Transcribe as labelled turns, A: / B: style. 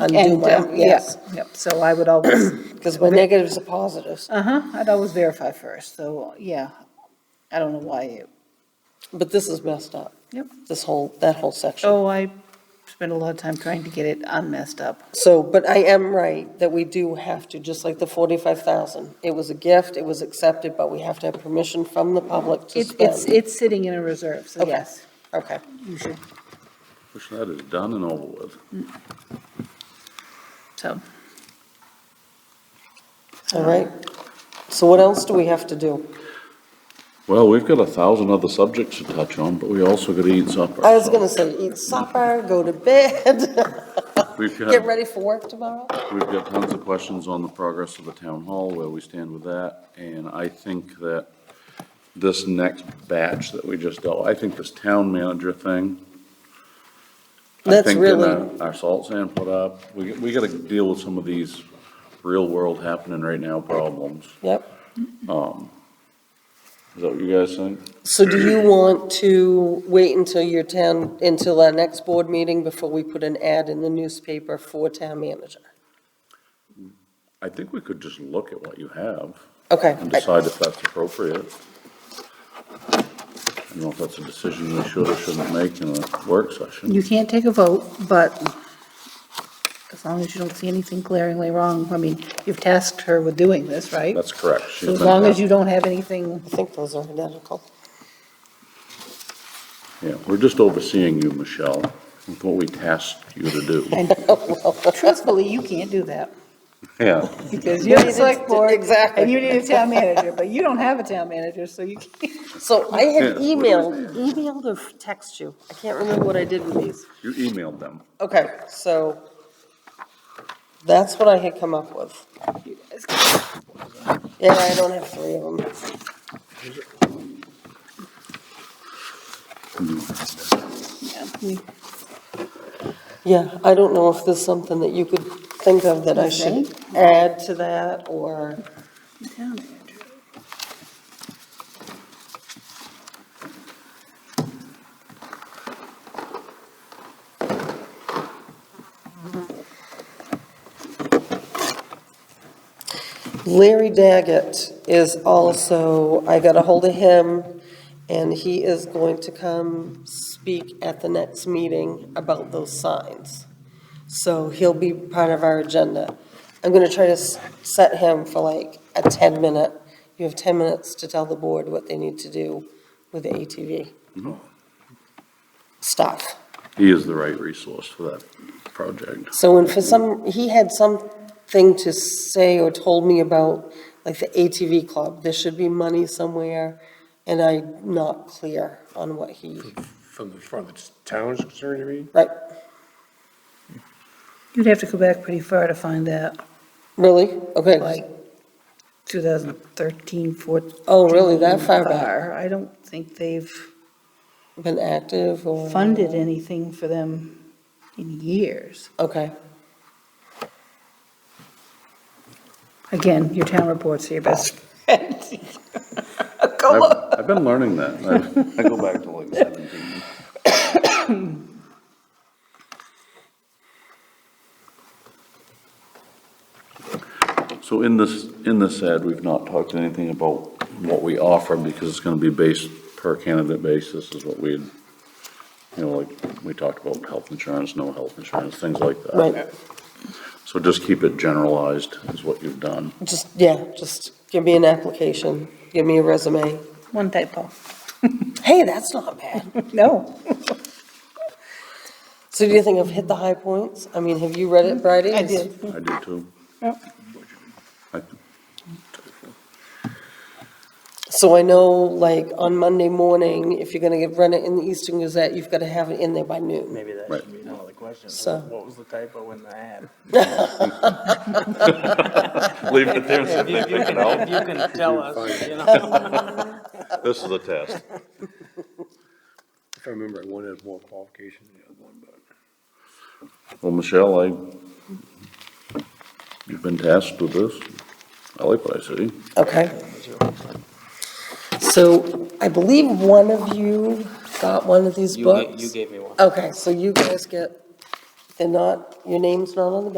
A: undo
B: And,
A: my,
B: um, yeah,
A: yes,
B: yep, so I would always,
A: because uh, my negatives are positives.
B: uh-huh, I'd always verify first, so, yeah. I don't know why you,
A: But this is messed up,
B: yep.
A: this whole, that whole section.
B: Oh, I spent a lot of time trying to get it unmessed up.
A: So, but I am right that we do have to, just like the forty-five thousand. It was a gift, it was accepted, but we have to have permission from the public to
B: It's, it's,
A: spend.
B: it's sitting in a reserve, so
A: Okay.
B: yes,
A: Okay,
B: you should,
C: Wish that is done and over with.
B: so.
A: all right. So what else do we have to do?
C: Well, we've got a thousand other subjects to touch on, but we also got to eat supper.
A: I was gonna say, eat supper, go to bed,
C: We've got-
A: get ready for work tomorrow?
C: We've got tons of questions on the progress of the town hall, where we stand with that, and I think that this next batch that we just dealt, I think this town manager thing. I
A: That's
C: think that,
A: really-
C: uh, Our salt sand put up, we, we gotta deal with some of these real world happening right now problems.
A: Yep.
C: Is that what you guys think?
A: So do you want to wait until your town, until our next board meeting before we put an ad in the newspaper for town manager?
C: I think we could just look at what you have
A: Okay,
C: and
A: I-
C: decide if that's appropriate. I don't know if that's a decision we should or shouldn't make in a work session.
B: You can't take a vote, but as long as you don't see anything glaringly wrong, I mean, you've tasked her with doing this, right?
C: That's correct. She's
B: So as
C: been
B: long as
C: tasked.
B: you don't have anything,
A: I think those are identical.
C: Yeah, we're just overseeing you, Michelle, with what we tasked you to do.
B: and truthfully, you can't do that.
C: Yeah,
B: Because you're the select board.
A: Exactly.
B: And you need a town manager, but you don't have a town manager, so you can't.
A: So I had
C: Yeah.
A: emailed, emailed or text you, I can't remember what I did with these.
C: you emailed them.
A: Okay, so that's what I had come up with. Yeah, I don't have three of them. Yeah, I don't know if there's something that you could think of that I should add to that, or,
B: Town manager.
A: Larry Daggett is also, I got a hold of him, and he is going to come speak at the next meeting about those signs. So he'll be part of our agenda. I'm gonna try to s- set him for like a 10-minute, you have 10 minutes to tell the board what they need to do with the ATV stuff.
C: He is the right resource for that project.
A: So, and for some, he had something to say or told me about, like, the ATV club, there should be money somewhere, and I'm not clear on what he,
D: From the, from the town's concern, you mean?
A: like,
B: You'd have to go back pretty far to find that,
A: really? Okay,
B: like 2013, 14.
A: Oh, really? That far back?
B: I don't think they've
A: been active or?
B: funded anything for them in years.
A: Okay,
B: Again, your town reports are your best friend. Go
C: I've,
B: look.
C: I've been learning that. I- I go back to like seventeen. So in this, in this ad, we've not talked anything about what we offer because it's gonna be based per candidate basis is what we, you know, like, we talked about health insurance, no health insurance, things like that.
A: right,
C: So just keep it generalized is what you've done.
A: just, yeah, just give me an application, give me a resume.
B: One typo.
A: Hey, that's not bad.
B: No.
A: So do you think I've hit the high points? I mean, have you read it, Bridie?
B: I did.
C: I do too.
B: Yep.
C: I-
A: So I know, like, on Monday morning, if you're gonna get, run it in the Eastern Gazette, you've gotta have it in there by noon.
E: Maybe that
C: Right.
E: should be one of the questions.
A: So-
E: What was the typo in the ad?
C: Leave it there and see if they pick it out.
E: You can tell us, you know.
C: This is a test.
D: If I remember, one had more qualifications than the other one, but.
C: Well, Michelle, I, you've been tasked with this. I like what I see.
A: Okay. So I believe one of you got one of these
E: You gave,
A: books.
E: you gave me one.
A: Okay, so you guys get They're not, your name's not on the back.